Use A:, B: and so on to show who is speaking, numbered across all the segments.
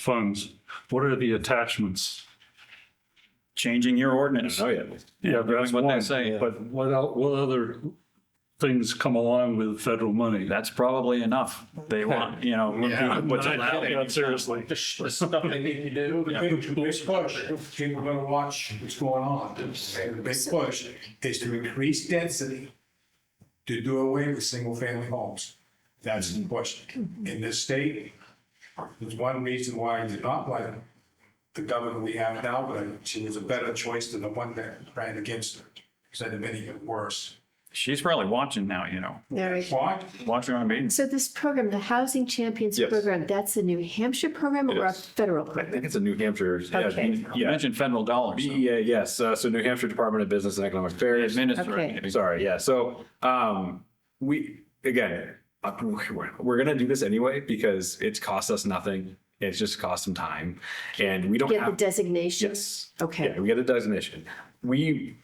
A: funds, what are the attachments?
B: changing your ordinance.
C: Oh, yeah.
A: Yeah,
C: That's
A: that's
C: what they
A: one,
C: say.
A: but what el, what other things come along with federal money?
B: That's probably enough. They want, you know,
C: Yeah.
B: what's allowed.
A: Yeah, Seriously.
C: The stuff they need to do.
D: The big, the big push, people are gonna watch what's going on. The big push is to increase density to do away with single-family homes. That's the push. In this state, there's one reason why I did not like the governor we have now, but she was a better choice than the one that ran against her. Because that'd have been even worse.
B: She's probably watching now, you know,
E: There we go.
D: What?
B: watching our meetings.
E: So this program, the Housing Champions
C: Yes.
E: Program, that's a New Hampshire program
C: It
E: or a
C: is.
E: federal
C: I
E: program?
C: think it's a New Hampshire. yeah,
E: Okay.
B: You
C: Yeah,
B: mentioned federal dollars. so
C: BEA, yes. Uh, So New Hampshire Department of Business and Economic Affairs.
B: Administering.
E: Okay.
B: it.
C: Sorry, yeah. So um, we, again, uh, we're we're gonna do this anyway because it's cost us nothing. It's just cost some time and we don't
E: Get the
C: have.
E: designation?
C: Yes.
E: Okay.
C: Yeah, we get a designation. We,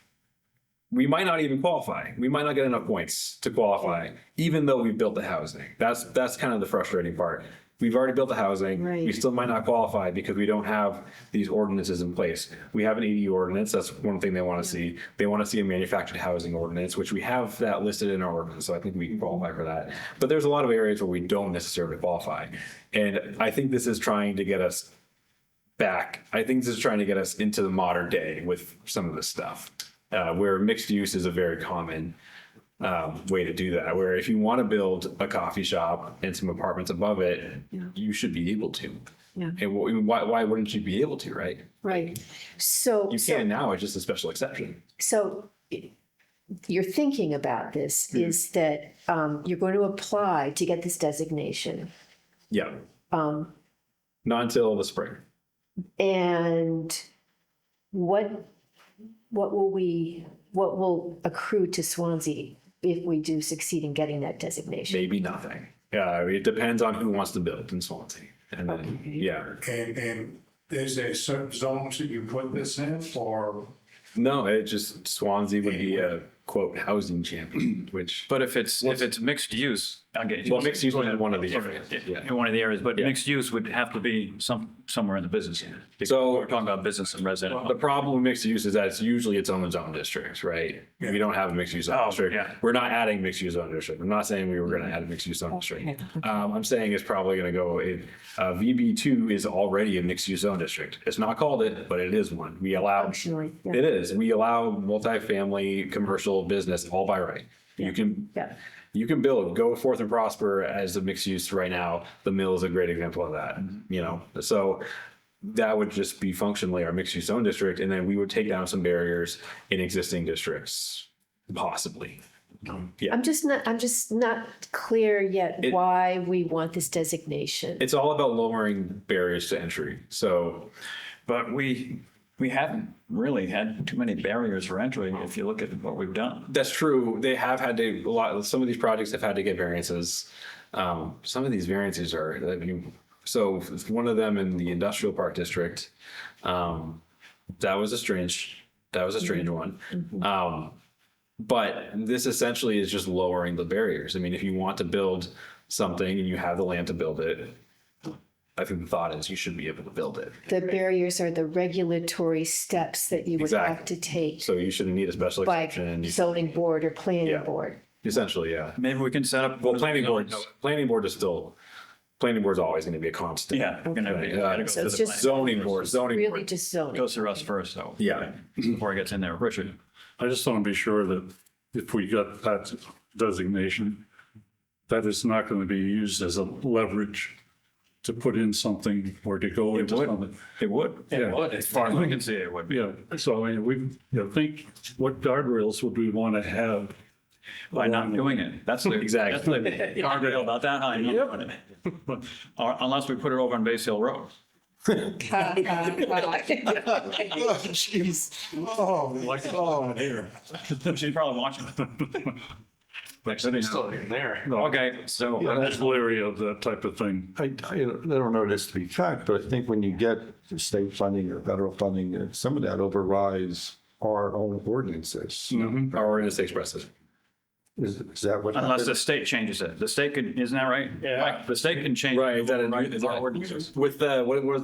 C: we might not even qualify. We might not get enough points to qualify, even though we've built the housing. That's, that's kind of the frustrating part. We've already built the housing. We
E: Right.
C: still might not qualify because we don't have these ordinances in place. We have an EDU ordinance. That's one thing they want to see. They want to see a manufactured housing ordinance, which we have that listed in our ordinance. So I think we can qualify for that. But there's a lot of areas where we don't necessarily qualify. And I think this is trying to get us back. I think this is trying to get us into the modern day with some of this stuff, uh, where mixed use is a very common um, way to do that. Where if you want to build a coffee shop and some apartments above it, you should be able to.
E: Yeah.
C: And wh- why, why wouldn't you be able to, right?
E: Right. So.
C: You
E: so-
C: can now, it's just a special exception.
E: So i- your thinking about
C: Hmm.
E: this is that um, you're going to apply to get this designation.
C: Yeah.
E: Um,
C: Not until the spring.
E: And what, what will we, what will accrue to Swansea if we do succeed in getting that designation?
C: Maybe nothing. Yeah, it depends on who wants to build in Swansea. And then, yeah.
D: And, and is there certain zones that you put this in or?
C: No, it just Swansea would be a quote housing champion, which
B: But if it's, if it's mixed use, I'll get you.
C: Well, mixed use is one of the
B: Sorry,
C: areas.
B: yeah, In one of the areas, but mixed use would have to be some, somewhere in the business.
C: So-
B: We're talking about business and
C: The
B: residential.
C: problem with mixed use is that it's usually its own zone districts, right? We don't have a mixed use zone
B: Oh,
C: district.
B: yeah.
C: We're not adding mixed use zone district. I'm not saying we were going to add a mixed use zone district. Um, I'm saying it's probably going to go. It, uh, VB two is already a mixed use zone district. It's not called it, but it is one. We allow.
E: Functionally, yeah.
C: It is. We allow multifamily commercial business all by right. You can.
E: Yeah.
C: You can build, go forth and prosper as a mixed use right now. The mill is a great example of that, you know? So that would just be functionally our mixed use zone district. And then we would take down some barriers in existing districts, possibly.
E: I'm just not, I'm just not clear yet
C: It-
E: why we want this designation.
C: It's all about lowering barriers to entry. So
B: But we, we haven't really had too many barriers for entry if you look at what we've done.
C: that's true. They have had to, a lot, some of these projects have had to get variances. Um, some of these variances are, I mean, so one of them in the industrial park district, um, that was a strange, that was a strange one. Um, but this essentially is just lowering the barriers. I mean, if you want to build something and you have the land to build it, I think the thought is you should be able to build it.
E: The barriers are the regulatory steps that you would have to take
C: So you shouldn't need a special
E: by
C: exception,
E: zoning board or
C: Yeah.
E: planning board.
C: essentially, yeah.
B: Maybe we can set up.
C: Well, planning board, planning board is still, planning board's always gonna be a constant.
B: Yeah. we're gonna- we
C: Yeah.
B: gotta go
E: So
B: through
E: it's
B: the
E: just-
B: plan.
C: Zoning board, zoning
E: Really
C: board.
E: just zoning.
B: Goes through us first, though.
C: Yeah.
B: Before it gets in there. Richard,
A: I just want to be sure that if we got that designation, that is not going to be used as a leverage to put in something or to go into
B: would.
A: something.
B: it would.
A: Yeah. would,
B: As far as I can see, it would.
A: Yeah, so I mean, we, you know, think, what guardrails would we want to have?
B: By not doing it. That's the.
C: Exactly.
B: that's the Guardrail about that high. not doing it. Or unless we put it over on Base Hill Road.
D: Oh, like, oh, here.
B: She's probably watching. Okay, so
F: Yeah,
A: That's leery of that type of thing.
F: I, I don't I don't know this to be fact, but I think when you get state funding or federal funding, uh, some of that overrides our own ordinances.
C: Our ordinance expresses.
F: Is, is that what?
B: unless the
F: happened?
B: state changes it, the state could, isn't that right? Yeah. The state can change.
C: Right, is that a-
B: Right, it's our ordinances.
C: With the, what was